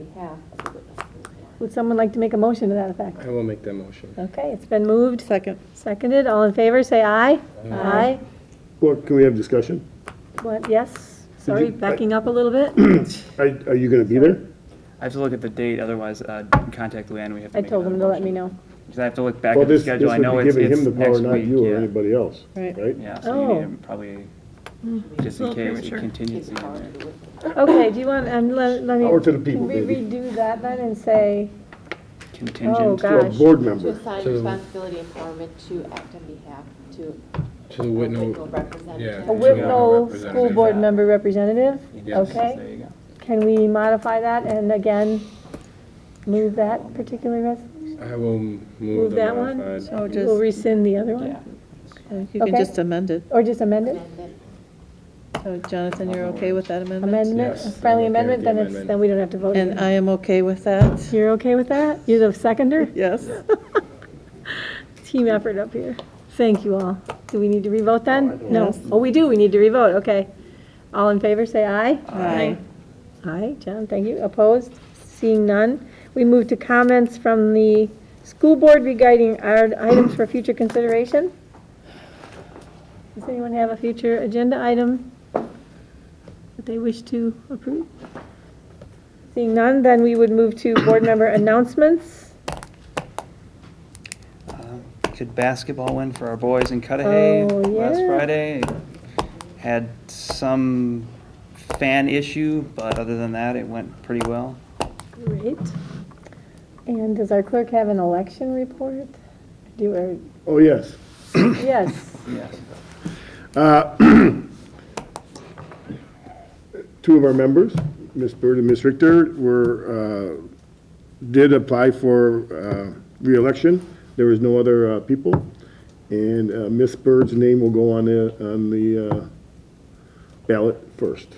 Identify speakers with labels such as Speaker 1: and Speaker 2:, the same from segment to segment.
Speaker 1: we have as a witness.
Speaker 2: Would someone like to make a motion to that effect?
Speaker 3: I will make that motion.
Speaker 2: Okay, it's been moved. Second. Seconded. All in favor, say aye. Aye.
Speaker 4: Well, can we have discussion?
Speaker 2: What, yes? Sorry,
Speaker 4: you-
Speaker 2: backing up a little bit.
Speaker 4: Are, are you gonna be there?
Speaker 5: I have to look at the date, otherwise, uh, contact Luann, we have to
Speaker 2: I
Speaker 5: make
Speaker 2: told them
Speaker 5: another
Speaker 2: to let me
Speaker 5: motion.
Speaker 2: know.
Speaker 5: Because I have to look back
Speaker 4: Well,
Speaker 5: at the
Speaker 4: this, this
Speaker 5: schedule, I
Speaker 4: would
Speaker 5: know
Speaker 4: be
Speaker 5: it's,
Speaker 4: giving
Speaker 5: it's
Speaker 4: him the power,
Speaker 5: next
Speaker 4: not
Speaker 5: week,
Speaker 4: you or
Speaker 5: yeah.
Speaker 4: anybody else,
Speaker 6: Right.
Speaker 4: right?
Speaker 5: Yeah, so
Speaker 2: Oh. Mm-hmm.
Speaker 5: you need to probably, just in case, a contingency. in there.
Speaker 2: Okay, do you want, and let, let me.
Speaker 4: Power to the people,
Speaker 2: Can we
Speaker 4: baby.
Speaker 2: redo that then and say, oh,
Speaker 5: Contingent,
Speaker 4: To a
Speaker 2: gosh.
Speaker 4: board
Speaker 1: To
Speaker 4: member.
Speaker 1: assign
Speaker 3: So-
Speaker 1: responsibility and empowerment to act on behalf to
Speaker 3: To the Whitnall,
Speaker 1: local representative.
Speaker 2: A
Speaker 3: Yeah. Whit-
Speaker 2: Whitlow school board member representative?
Speaker 5: yes, there
Speaker 2: Okay.
Speaker 5: you go.
Speaker 2: Can we modify that and again, move that particular res?
Speaker 3: I will move
Speaker 2: Move
Speaker 3: the
Speaker 2: that one?
Speaker 3: modified.
Speaker 6: So
Speaker 2: We'll
Speaker 6: just,
Speaker 2: rescind the other
Speaker 5: Yeah.
Speaker 2: one?
Speaker 6: you can
Speaker 2: Okay.
Speaker 6: just amend it.
Speaker 2: Or just amend it?
Speaker 1: And then
Speaker 6: So Jonathan, you're okay with that amendment?
Speaker 2: Amendment,
Speaker 3: Yes, I'm okay
Speaker 2: friendly
Speaker 3: with
Speaker 2: amendment,
Speaker 3: the
Speaker 2: then it's,
Speaker 3: amendment.
Speaker 2: then we don't have to vote.
Speaker 6: And
Speaker 2: again.
Speaker 6: I am okay with that.
Speaker 2: You're okay with that? You're the seconder?
Speaker 6: Yes.
Speaker 2: Team effort up here. Thank you all. Do we need to revote
Speaker 4: Oh, I
Speaker 2: then?
Speaker 4: don't
Speaker 2: No.
Speaker 6: Yes.
Speaker 2: Oh, we do, we need to revote, okay. All in favor, say aye.
Speaker 6: Aye.
Speaker 2: Aye, John, thank you. Opposed? Seeing none. We move to comments from the school board regarding our items for future consideration. Does anyone have a future agenda item that they wish to approve? Seeing none, then we would move to board member announcements.
Speaker 5: Uh, Could basketball win for our boys in Cudahy
Speaker 2: Oh,
Speaker 5: last
Speaker 2: yeah.
Speaker 5: Friday? Had some fan issue, but other than that, it went pretty well.
Speaker 2: Great. And does our clerk have an election report? Do, or,
Speaker 4: Oh, yes.
Speaker 2: yes,
Speaker 5: Yes.
Speaker 4: Two of our members, Ms. Bird and Ms. Richter, were, uh, did apply for uh, reelection. There was no other uh, people. And uh, Ms. Bird's name will go on the, on the uh, ballot first.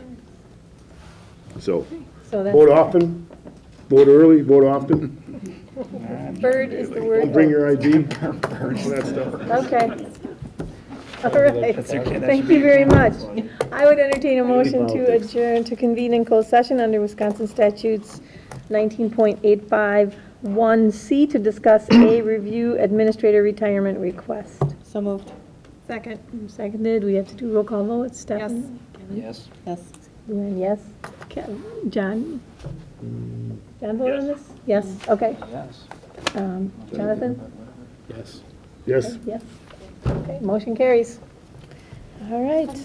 Speaker 4: So,
Speaker 2: so
Speaker 4: vote
Speaker 2: that's,
Speaker 4: often, vote early, vote often,
Speaker 2: bird is the word.
Speaker 4: don't bring your ID.
Speaker 2: Okay. All right.
Speaker 5: That's okay, that should
Speaker 2: Thank
Speaker 5: be
Speaker 2: you very
Speaker 5: it.
Speaker 2: much. I would entertain a motion to
Speaker 4: Politics.
Speaker 2: adjourn, to convene in closed session under Wisconsin statutes 19.851C to discuss a review administrator retirement request.
Speaker 6: So moved.
Speaker 2: Second. Seconded. We have to do roll call vote. Stephanie?
Speaker 5: Yes.
Speaker 6: Yes.
Speaker 2: Luann, yes. Ke- John? John vote on this? Yes, okay.
Speaker 5: Yes.
Speaker 2: Um, Jonathan?
Speaker 3: Yes.
Speaker 4: Yes.
Speaker 2: Yes. Okay, motion carries. All right.